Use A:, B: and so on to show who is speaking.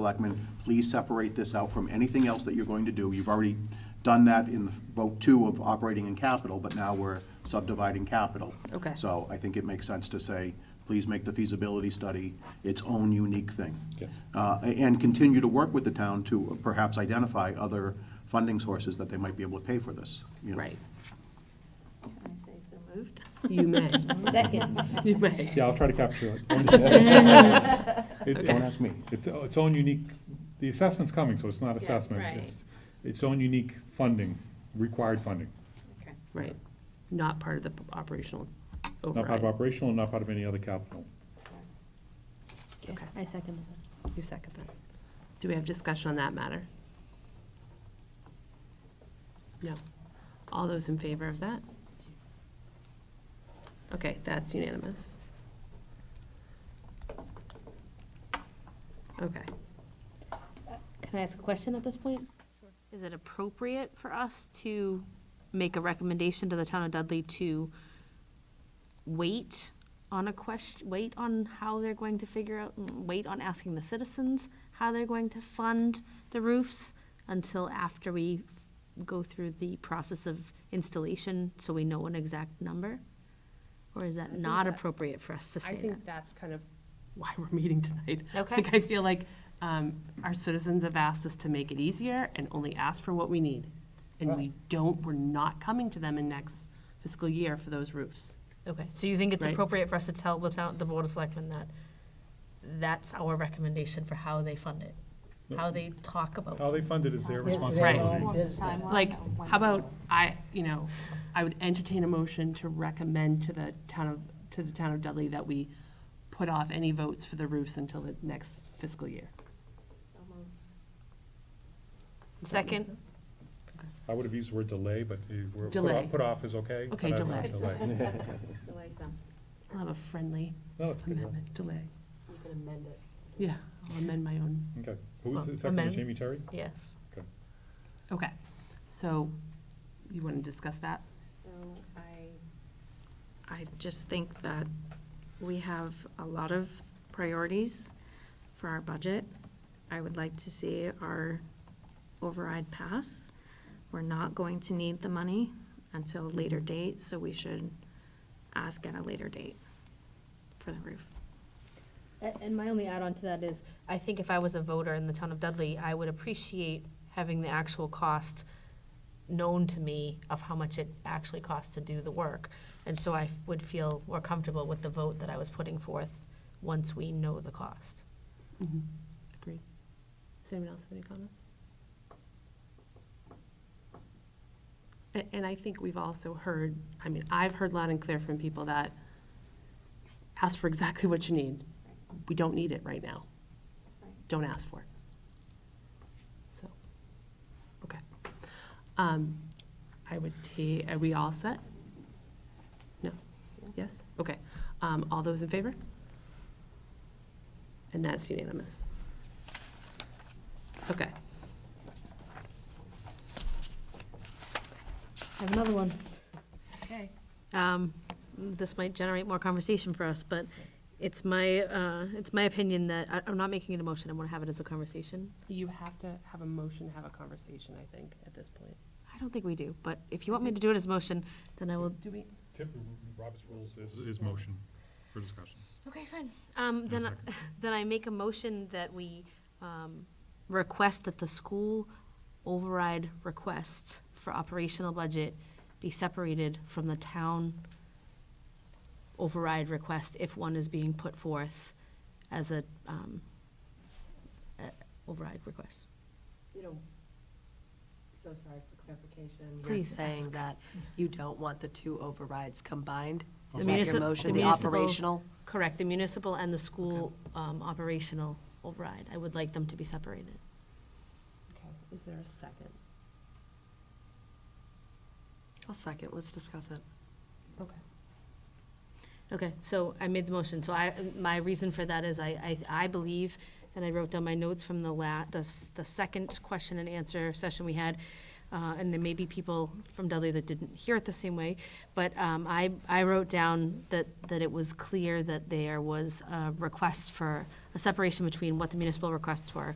A: Selectmen, please separate this out from anything else that you're going to do. You've already done that in the vote two of operating and capital, but now we're subdividing capital.
B: Okay.
A: So I think it makes sense to say, please make the feasibility study its own unique thing.
C: Yes.
A: Uh, a- And continue to work with the town to perhaps identify other funding sources that they might be able to pay for this. you know.
B: Right,
D: Can I say so moved?
B: you may,
D: Second.
B: you may.
C: Yeah, I'll try to capture it. It-
B: Okay.
A: Don't ask me.
C: It's its own unique, the assessment's coming, so it's not assessment.
D: right.
C: It's Its own unique funding, required funding.
B: Right, not part of the operational
C: Not part of
B: override.
C: operational, and not part of any other capital.
B: Okay.
E: I seconded that.
B: You second that. Do we have discussion on that matter? No. All those in favor of that? Okay, that's unanimous. Okay.
E: Can I ask a question at this point? Is it appropriate for us to make a recommendation to the town of Dudley to wait on a question, wait on how they're going to figure out, mm, wait on asking the citizens how they're going to fund the roofs until after we go through the process of installation, so we know an exact number? Or is that not
B: that-
E: appropriate for us to
B: I
E: say that?
B: think that's kind of why we're meeting tonight.
E: Okay.
B: Like, I feel like um, our citizens have asked us to make it easier and only ask for what we need. And we don't, we're not coming to them in next fiscal year for those roofs.
E: Okay, so you think it's
B: Right.
E: appropriate for us to tell the town, the board of selectmen that that's our recommendation for how they fund it? How they talk about.
C: Mm. How they fund it is their responsibility.
B: Right. Like, how about, I, you know, I would entertain a motion to recommend to the town of, to the town of Dudley that we put off any votes for the roofs until the next fiscal year.
E: Second,
C: I would have used the word delay, but uh, we're, put
B: Delay.
C: off- put off is okay.
B: Okay,
C: but I don't
B: delay.
C: Delay.
B: I'll have a friendly
C: No, it's good. enough.
B: amendment delay. You can amend it. Yeah, I'll amend my own.
C: Okay. Who was
E: Um,
C: the second?
E: amend.
C: Jamie Terry?
E: yes.
C: Okay.
B: Okay, so you want to discuss that?
D: I just think that we have a lot of priorities for our budget. I would like to see our override pass. We're not going to need the money until a later date, so we should ask at a later date for the roof.
E: And my only add-on to that is, I think if I was a voter in the town of Dudley, I would appreciate having the actual cost known to me of how much it actually costs to do the work. And so I f- would feel more comfortable with the vote that I was putting forth once we know the cost.
B: Agreed. Does anyone else have any comments? And, and I think we've also heard, I mean, I've heard loud and clear from people that ask for exactly what you need. We don't need it right now. Don't ask for it. So, okay. Um, I would ta, are we all set? No? Yes? Okay. Um, all those in favor? And that's unanimous. Okay.
E: I have another one.
D: Okay.
E: um, this might generate more conversation for us, but it's my, uh, it's my opinion that, I, I'm not making it a motion, I wanna have it as a conversation.
B: You have to have a motion, to have a conversation, I think, at this point.
E: I don't think we do, but if you want me to do it as a motion, then I will,
B: Do we?
C: Tip, Robert's rules is, is motion for discussion.
E: okay, fine. Um, then, I-
C: second.
E: then I make a motion that we, um, request that the school override request for operational budget be separated from the town override request if one is being put forth as a, um, uh, override request.
F: You know, so sorry for clarification. You're
E: Please
F: saying
E: ask.
F: that you don't want the two overrides combined?
E: The
F: Is that
E: munici-
F: your motion,
E: the
F: the
E: municipal-
F: operational?
E: Correct, the municipal and the school um, operational override. I would like them to be separated.
F: Okay, is there a second? I'll second, let's discuss it.
B: Okay.
E: Okay, so I made the motion, so I, my reason for that is I, I, I believe, and I wrote down my notes from the la, the, s- the second question and answer session we had, uh, and there may be people from Dudley that didn't hear it the same way, but um, I, I wrote down that, that it was clear that there was a request for a separation between what the municipal requests were